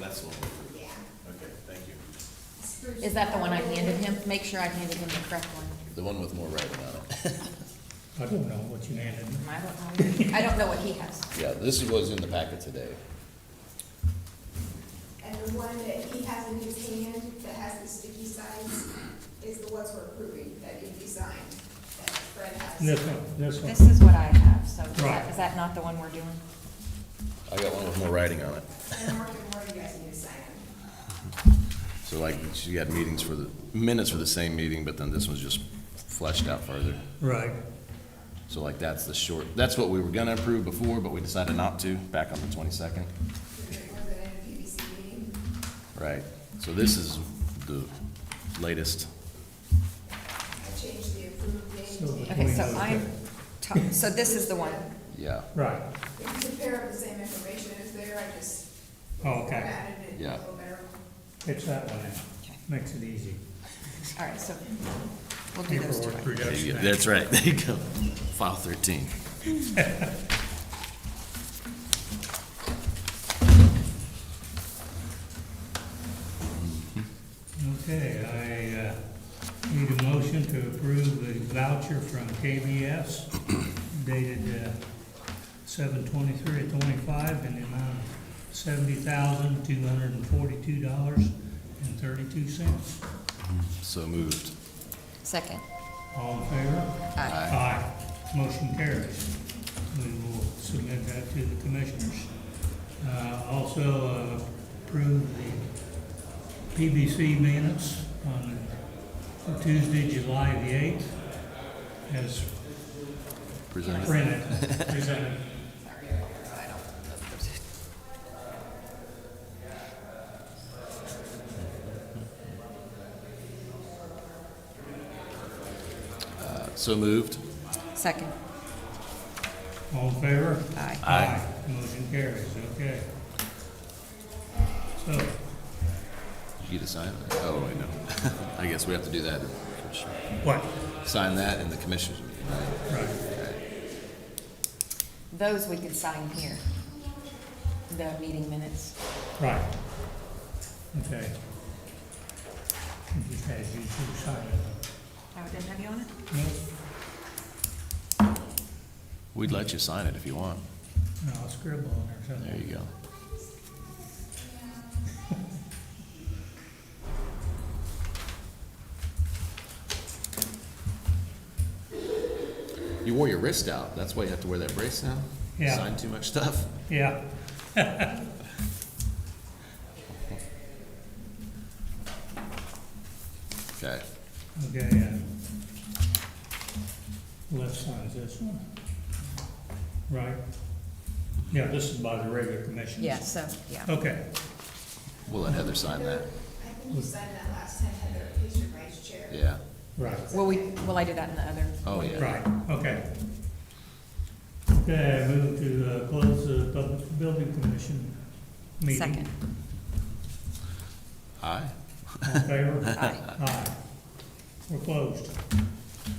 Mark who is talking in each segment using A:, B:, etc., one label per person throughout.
A: that's the one.
B: Yeah.
A: Okay, thank you.
C: Is that the one I handed him? Make sure I handed him the correct one.
A: The one with more writing on it.
D: I don't know what you handed me.
C: I don't know. I don't know what he has.
A: Yeah, this was in the packet today.
B: And the one that he has in his hand that has the sticky signs is the ones we're approving that need to be signed, that Fred has.
D: This one, this
C: This
D: one.
C: is what I have, so is
D: Right.
C: that, is that not the one we're doing?
A: I got one with more writing on it.
B: And Mark and Marty, you guys need to sign them.
A: So like, she had meetings for the, minutes for the same meeting, but then this one's just fleshed out further.
D: Right.
A: So like, that's the short, that's what we were gonna approve before, but we decided not to, back on the twenty-second.
B: It was at a PBC meeting.
A: Right, so this is the latest.
B: I changed the approved
D: So
B: name
D: the
B: to.
C: Okay, so
D: point
C: I'm,
D: is
C: ta- so this is the one.
A: Yeah,
D: that- Right,
B: If you compare it, the same information is there, I just
D: Oh, okay,
B: added it
A: Yeah.
B: a little better.
D: it's that one, now.
C: Okay.
D: makes it easy.
C: All right, so we'll do those two.
D: Paperwork reduction. Act.
A: that's right, there you go, file thirteen.
D: Okay, I uh, need a motion to approve the voucher from KBS dated uh, seven twenty-three twenty-five in the amount of seventy thousand, two hundred and forty-two dollars and thirty-two cents.
A: So moved.
C: Second.
D: All in favor?
C: Aye.
D: Aye. Motion carries. We will submit that to the commissioners. Uh, Also uh, approve the PBC minutes on Tuesday, July the 8th as
A: Presented.
D: printed, presented.
A: So moved.
C: Second.
D: All in favor?
C: Aye.
A: Aye.
D: Motion carries, okay. So,
A: You to sign it? Oh, wait, no. I guess we have to do that.
D: what?
A: Sign that in the commissioners meeting, right?
D: Right.
C: Those we can sign here. The meeting minutes.
D: Right. Okay. I Just had you two sign it.
C: Oh, it didn't have you on it?
D: Nope,
A: We'd let you sign it if you want.
D: no, I'll scribble on there
A: There
D: something.
A: you go. You wore your wrist out. That's why you have to wear that brace now?
D: Yeah.
A: Sign too much stuff?
D: Yeah,
A: Okay.
D: okay, and left side's this one. Right? Yeah, this is by the regular commissions.
C: Yeah, so, yeah.
D: Okay,
A: We'll let Heather sign
B: I
A: that.
B: think you signed that last time, Heather, he's your vice chair.
A: Yeah.
D: right,
C: Will we, will I do that in the other?
A: Oh, yeah.
D: right, okay. Okay, I move to uh, close the public building commission meeting.
C: Second.
A: Aye.
D: All in favor?
C: Aye.
D: Aye. We're closed.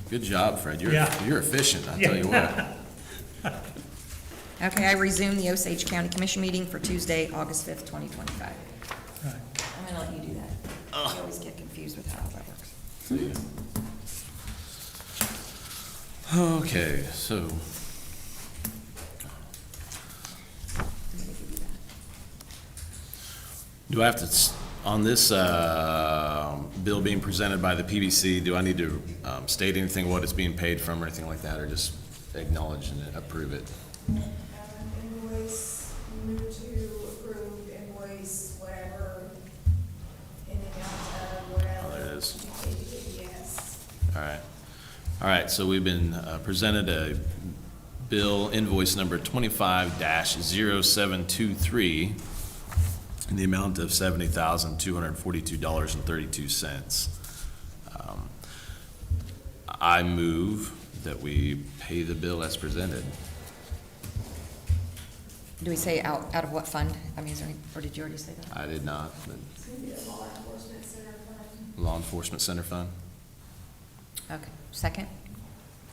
A: Good job, Fred. You're,
D: Yeah.
A: you're efficient, I tell you what.
C: Okay, I resume the Osage County Commission meeting for Tuesday, August fifth, twenty twenty-five.
D: Right.
C: I'm gonna let you do that. I always get confused with how all that works.
A: See ya. Okay, so
C: I'm gonna give you that.
A: do I have to, s- on this uh, bill being presented by the PBC, do I need to um, state anything, what it's being paid from or anything like that, or just acknowledge and approve it?
B: Um, Invoice, move to approve invoice, whatever, in the amount of whatever.
A: Oh, there it is.
B: Yes.
A: All right. All right, so we've been uh, presented a bill invoice number twenty-five dash zero seven two three in the amount of seventy thousand, two hundred and forty-two dollars and thirty-two cents. Um, I move that we pay the bill as presented.
C: Do we say out, out of what fund? I mean, is there any, or did you already say that?
A: I did not, but
B: It's gonna be the law enforcement center fund.
A: law enforcement center fund,
C: Okay, second?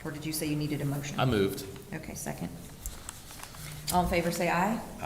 C: Or did you say you needed a motion?
A: I moved.
C: Okay, second. All in favor, say aye.